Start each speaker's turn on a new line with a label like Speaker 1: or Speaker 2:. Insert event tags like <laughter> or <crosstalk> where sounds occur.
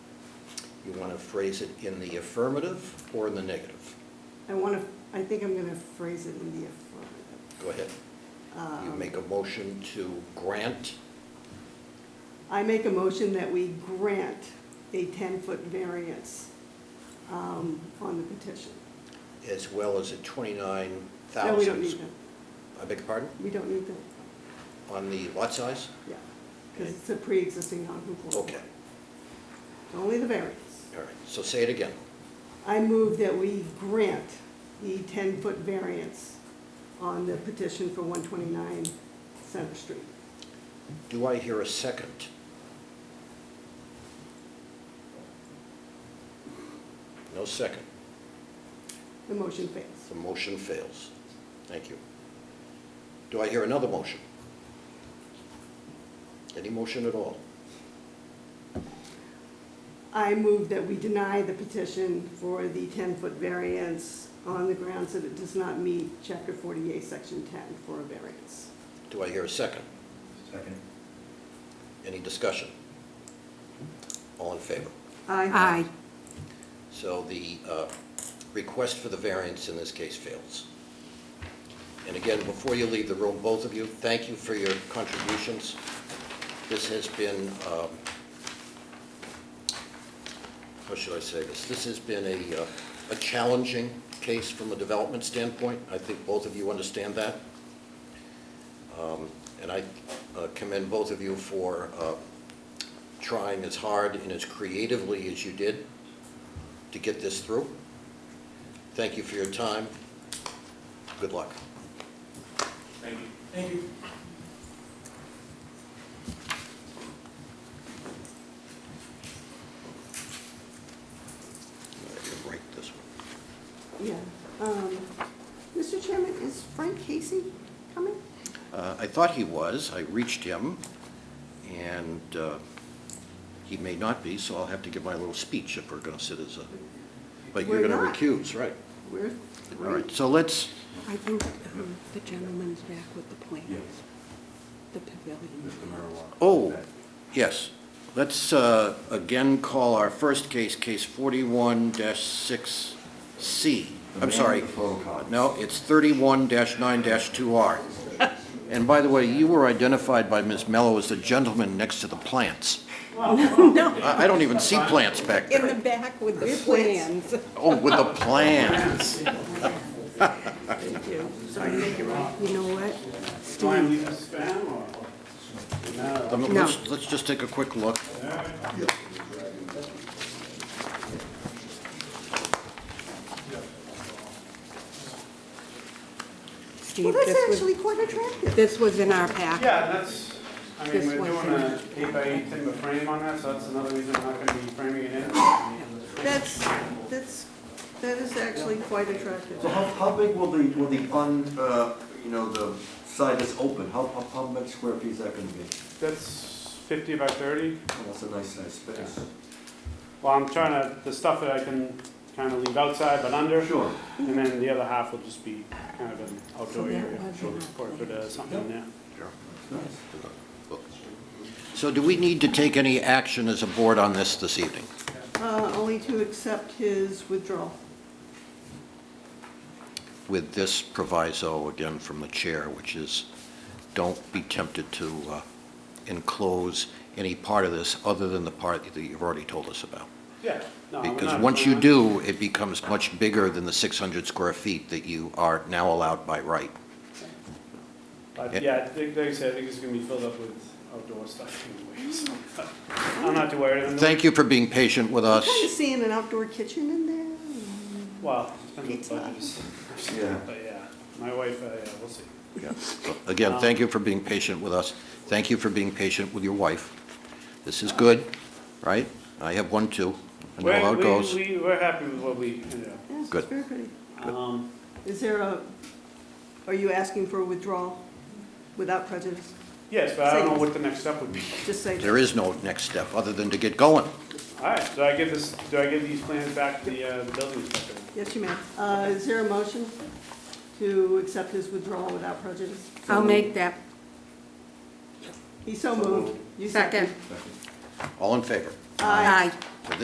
Speaker 1: You want to phrase it in the affirmative or in the negative?
Speaker 2: I want to, I think I'm going to phrase it in the affirmative.
Speaker 1: Go ahead. You
Speaker 2: Um,
Speaker 1: make a motion to grant,
Speaker 2: I make a motion that we grant a 10-foot variance um, on the petition.
Speaker 1: as well as a 29,000.
Speaker 2: No, we don't need that.
Speaker 1: I beg your pardon?
Speaker 2: We don't need that,
Speaker 1: On the lot size?
Speaker 2: yeah, because it's a pre-existing non-conforming.
Speaker 1: Okay,
Speaker 2: Only the variance.
Speaker 1: all right. So say it again.
Speaker 2: I move that we grant the 10-foot variance on the petition for 129 Center Street.
Speaker 1: Do I hear a second? No second.
Speaker 2: The motion fails.
Speaker 1: The motion fails. Thank you. Do I hear another motion? Any motion at all?
Speaker 2: I move that we deny the petition for the 10-foot variance on the grounds that it does not meet Chapter 48, Section 10 for a variance.
Speaker 1: Do I hear a second?
Speaker 3: Second.
Speaker 1: Any discussion? All in favor?
Speaker 4: Aye.
Speaker 1: So the uh, request for the variance in this case fails. And again, before you leave the room, both of you, thank you for your contributions. This has been, um, how should I say this? This has been a uh, a challenging case from a development standpoint. I think both of you understand that. Um, And I uh, commend both of you for uh, trying as hard and as creatively as you did to get this through. Thank you for your time. Good luck.
Speaker 3: Thank you. Thank you.
Speaker 1: I can break this one.
Speaker 2: Yeah. Um, Mr. Chairman, is Frank Casey coming?
Speaker 1: Uh, I thought he was. I reached him, and uh, he may not be, so I'll have to give my little speech if we're going to sit as a, but you're
Speaker 2: We're
Speaker 1: going to
Speaker 2: not.
Speaker 1: recuse, right?
Speaker 2: Where?
Speaker 1: All right, so let's,
Speaker 4: I think um, the gentleman's back with the plans.
Speaker 3: Yes,
Speaker 4: The pavilion.
Speaker 3: Mr. Marowak.
Speaker 1: oh, yes. Let's uh, again call our first case, case 41-6C.
Speaker 3: The
Speaker 1: I'm
Speaker 3: man
Speaker 1: sorry.
Speaker 3: with the photocopies.
Speaker 1: No, it's 31-9-2R. And by the way, you were identified by Ms. Mello as the gentleman next to the plants.
Speaker 4: Oh, No,
Speaker 1: I I don't even see plants back
Speaker 4: in
Speaker 1: there.
Speaker 4: the back with the
Speaker 2: With plans.
Speaker 4: plans.
Speaker 1: Oh, with the
Speaker 4: <laughs>
Speaker 1: plants.
Speaker 2: Thank you. Sorry to make it wrong.
Speaker 4: You know what?
Speaker 5: Why,
Speaker 4: Steve,
Speaker 5: we just spam or?
Speaker 1: I mean,
Speaker 4: No.
Speaker 1: Um, Let's let's just take a quick look.
Speaker 2: Well,
Speaker 4: Steve,
Speaker 2: that's
Speaker 4: this was,
Speaker 2: actually quite attractive.
Speaker 4: this was in our pack.
Speaker 5: Yeah, that's, I mean,
Speaker 4: This
Speaker 5: we're
Speaker 4: one
Speaker 5: doing
Speaker 4: thing.
Speaker 5: a eight by eight timber frame on that, so that's another reason I'm not gonna be framing it in.
Speaker 2: That's, that's, that is actually quite attractive.
Speaker 3: So how, how big will the, will the un, uh, you know, the side that's open, how, how, how much square feet is that gonna be?
Speaker 5: That's fifty by thirty.
Speaker 3: Oh, That's a nice size space.
Speaker 5: Well, I'm trying to, the stuff that I can kind of leave outside but under,
Speaker 3: Sure.
Speaker 5: and then the other half will just be kind of an outdoor
Speaker 4: So that
Speaker 5: area.
Speaker 4: was
Speaker 5: Sure.
Speaker 4: an
Speaker 5: Or put uh, something in there.
Speaker 3: Nice.
Speaker 1: So do we need to take any action as a board on this this evening?
Speaker 2: Uh, Only to accept his withdrawal.
Speaker 1: with this proviso, again from the chair, which is, don't be tempted to uh, enclose any part of this other than the part that you've already told us about.
Speaker 5: Yeah. no, we're
Speaker 1: Because
Speaker 5: not-
Speaker 1: once
Speaker 5: we're
Speaker 1: you
Speaker 5: not-
Speaker 1: do, it becomes much bigger than the 600 square feet that you are now allowed by right.
Speaker 5: But yeah, I think- like I said, I think it's gonna be filled up with outdoor stuff anyway, so. <laughs> I'm not too worried. I'm-
Speaker 1: Thank you for being patient with us.
Speaker 2: Kind of seeing an outdoor kitchen in there.
Speaker 5: Well, depends
Speaker 2: Pizza.
Speaker 5: on the budgets. <laughs>
Speaker 3: Yeah.
Speaker 5: But yeah, my wife, uh, yeah, we'll see.
Speaker 1: Again, thank you for being patient with us. Thank you for being patient with your wife. This is good, right? I have one, too. I know
Speaker 5: We're-
Speaker 1: how it
Speaker 5: we-
Speaker 1: goes.
Speaker 5: We, we're happy with what we ended up.
Speaker 2: Yes,
Speaker 1: Good.
Speaker 2: it's very pretty.
Speaker 5: Um,
Speaker 2: Is there a, are you asking for a withdrawal without prejudice?
Speaker 5: yes, but I don't know what the next step would be.
Speaker 2: Just say.
Speaker 1: There is no next step other than to get going.
Speaker 5: All right, so I give this, do I give these plans back to the, uh, the building inspector?
Speaker 2: Yes, you may. Uh, Is there a motion to accept his withdrawal without prejudice?
Speaker 4: I'll make that
Speaker 2: He so moved. You
Speaker 4: second.
Speaker 2: second.
Speaker 1: All in favor?
Speaker 4: Aye.